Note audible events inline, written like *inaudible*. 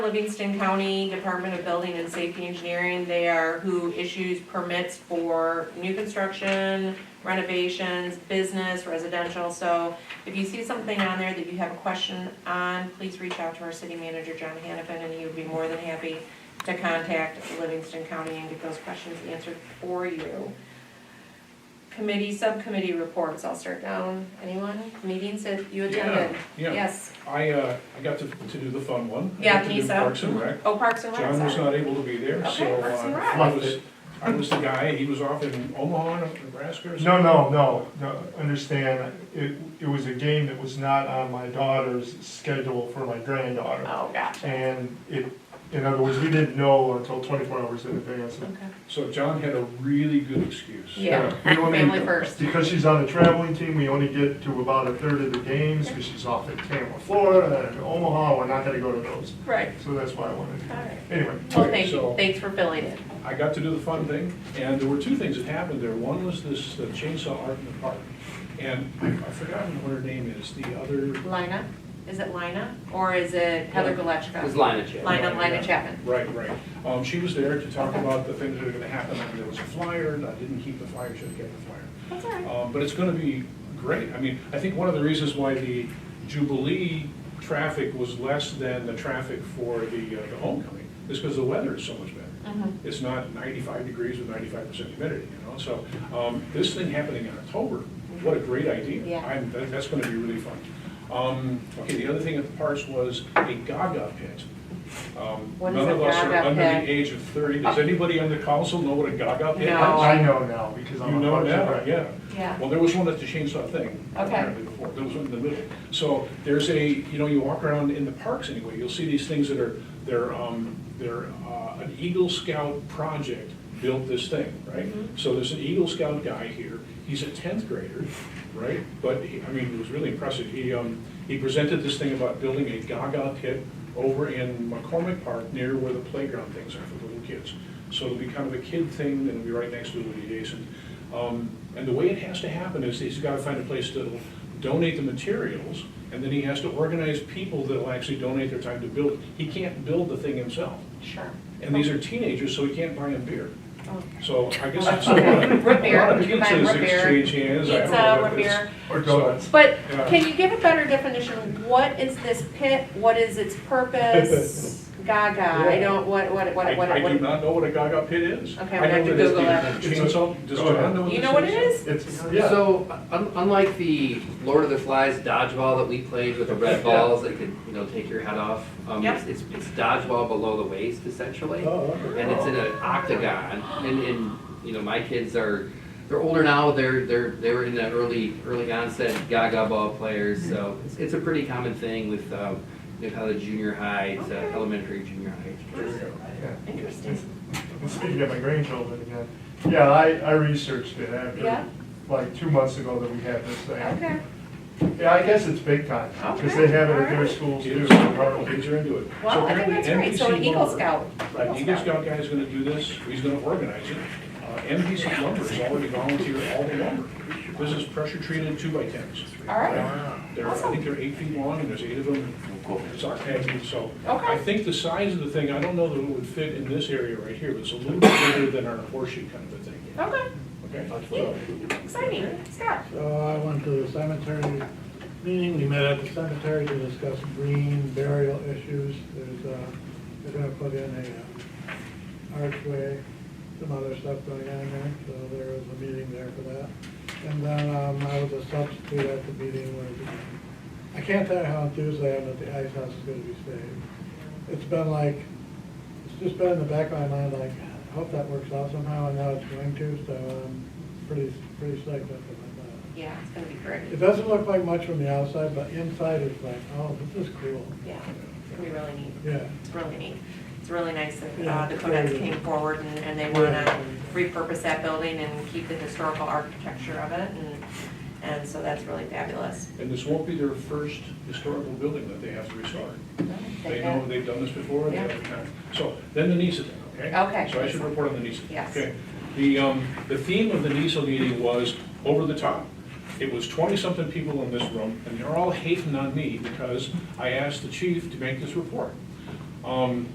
Livingston County Department of Building and Safety Engineering, they are who issues permits for new construction, renovations, business, residential, so if you see something on there that you have a question on, please reach out to our city manager, John Hannafin, and he would be more than happy to contact Livingston County and get those questions answered for you. Committee, subcommittee reports, I'll start down, anyone, meetings that you attended? Yeah, yeah. Yes, I, uh, I got to, to do the fun one. I Yeah, got to me do so. Parks and Rec. oh, Parks and Rec, John was sorry. not able to be there, Okay, so, Parks and uh, Rec. I was, I was the guy, he was off in Omaha, Nebraska or something. No, no, no, no, understand, it, it was a game that was not on my daughter's schedule for my granddaughter. Oh, gotcha. And it, in other words, we didn't know until twenty-four hours in advance. Okay. So John had a really good excuse. Yeah. We only- Family first. Because she's on the traveling team, we only get to about a third of the games, because she's off at Tampa, Florida, and Omaha, we're not gonna go to those. Right. So that's why I wanted All to, right. anyway. Well, Okay, thank you. so- Thanks for filling it. I got to do the fun thing, and there were two things that happened there. One was this uh, chainsaw art in the park. And I- I've forgotten what her name is, the other, Lina? Is it Lina? Or is it Heather Galachka? It's line of check. Lina, Lina Chapman. right, right. Um, she was there to talk about the things that are gonna happen. And There was a flyer, and I didn't keep the flyer, should have kept the flyer. That's all right. Um, But it's gonna be great. I mean, I think one of the reasons why the Jubilee traffic was less than the traffic for the uh, the homecoming is because the weather is so much better. Mhm. It's not 95 degrees with 95% humidity, you know? So um, this thing happening in October, what a great idea. Yeah. I'm- that- That's gonna be really fun. Um, Okay, the other thing at the parks was a Gaga pit. Um, What is None a of us are Gaga under pit? Oh. the age of 30. Does anybody on the council know what a Gaga pit is? No. I know now, because You I'm a know Parks and now, Rec. yeah. Yeah. Well, there was one at the chainsaw thing. Okay. apparently Before, there was one in the middle. So there's a, you know, you walk around in the parks anyway, you'll see these things that are, they're, um, they're, uh, an Eagle Scout project built this thing, right? Mm-hmm. So there's an Eagle Scout guy here, he's a tenth grader, right? But, he- I mean, it was really impressive. He, um, he presented this thing about building a Gaga pit over in McCormick Park near where the playground things are for little kids. So it'll be kind of a kid thing, and it'll be right next to it adjacent. Um, And the way it has to happen is he's gotta find a place to donate the materials, and then he has to organize people that'll actually donate their time to build it. He can't build the thing himself. Sure. And these are teenagers, so he can't buy them beer. Oh. So I guess Well, that's that's a lot. okay. Root beer. A lot of You can buy pizzas root beer. exchange hands, I don't Pizza, know root what it is. uh, beer. Or donuts. But Yeah. can you give a better definition? What is this pit? What is its *laughs* purpose? Gaga, I don't, what, what, I what, what? I do what- not know what a gaga pit is. Okay, I'm gonna have to I know Google that it's it. the chainsaw, does Go ahead. John know what You know what it is? It's, yeah, So, un- unlike the Lord of the Flies dodgeball that we played with the red balls that could, you know, take your head off, um, Yep. it's, it's it's dodgeball below the waist essentially. Oh, okay. And it's in an octagon, and, and, you know, my kids are, they're older now, they're, they're, they were in the early, early onset Gaga ball players, so it's, it's a pretty common thing with, um, you know, how the junior high, to Okay. elementary, junior high. There we go. yeah. Interesting. And Speaking of my grandchildren again, yeah, I, I researched it Yeah. after, like, two months ago that we had this thing. Okay. Yeah, I guess it's big time, because Okay, they have it at all their right. schools too. Kids are part- kids are into it. So Well, I think apparently that's great. So an NPC Eagle lumber- Scout. Right, Eagle Scout guy is gonna do this, he's gonna organize it. Uh, MPC Lumber has already volunteered all the lumber. This is pressure treated two by tens. All right. They're, I think they're eight feet long and there's eight of them, it's octagonal, so. Okay. I think the size of the thing, I don't know that it would fit in this area right here, but it's a little bit bigger than our horseshoe kind of a thing, Okay, okay? exciting. Scott? So I went to the cemetery meeting, we met at the cemetery to discuss green burial issues. There's, uh, they're gonna put in a uh, archway, some other stuff going on there, so there was a meeting there for that. And then, um, I was a substitute at the meeting where, the- I can't tell you how enthused I am that the ice house is gonna be saved. It's been like, it's just been in the back of my mind, like, I hope that works out somehow, and now it's going to, so I'm pretty, pretty psyched up about that. Yeah, it's gonna be great. It doesn't look like much from the outside, but inside it's like, oh, this is cool. Yeah, it's gonna be really neat. Yeah. It's really neat. It's really nice that uh, Yeah, the it's Conex very neat. came forward and, and they Yeah. wanna repurpose that building and keep the historical architecture of it and, and so that's really fabulous. And this won't be their first historical building that they have to restore. They know, they've done this before, they Yeah. have the time. So, then the NISA thing, okay? Okay. So I should report on the NISA. Yes. Okay. The, um, the theme of the NISA meeting was over the top. It was twenty-something people in this room, and they're all hating on me because I asked the chief to make this report. Um,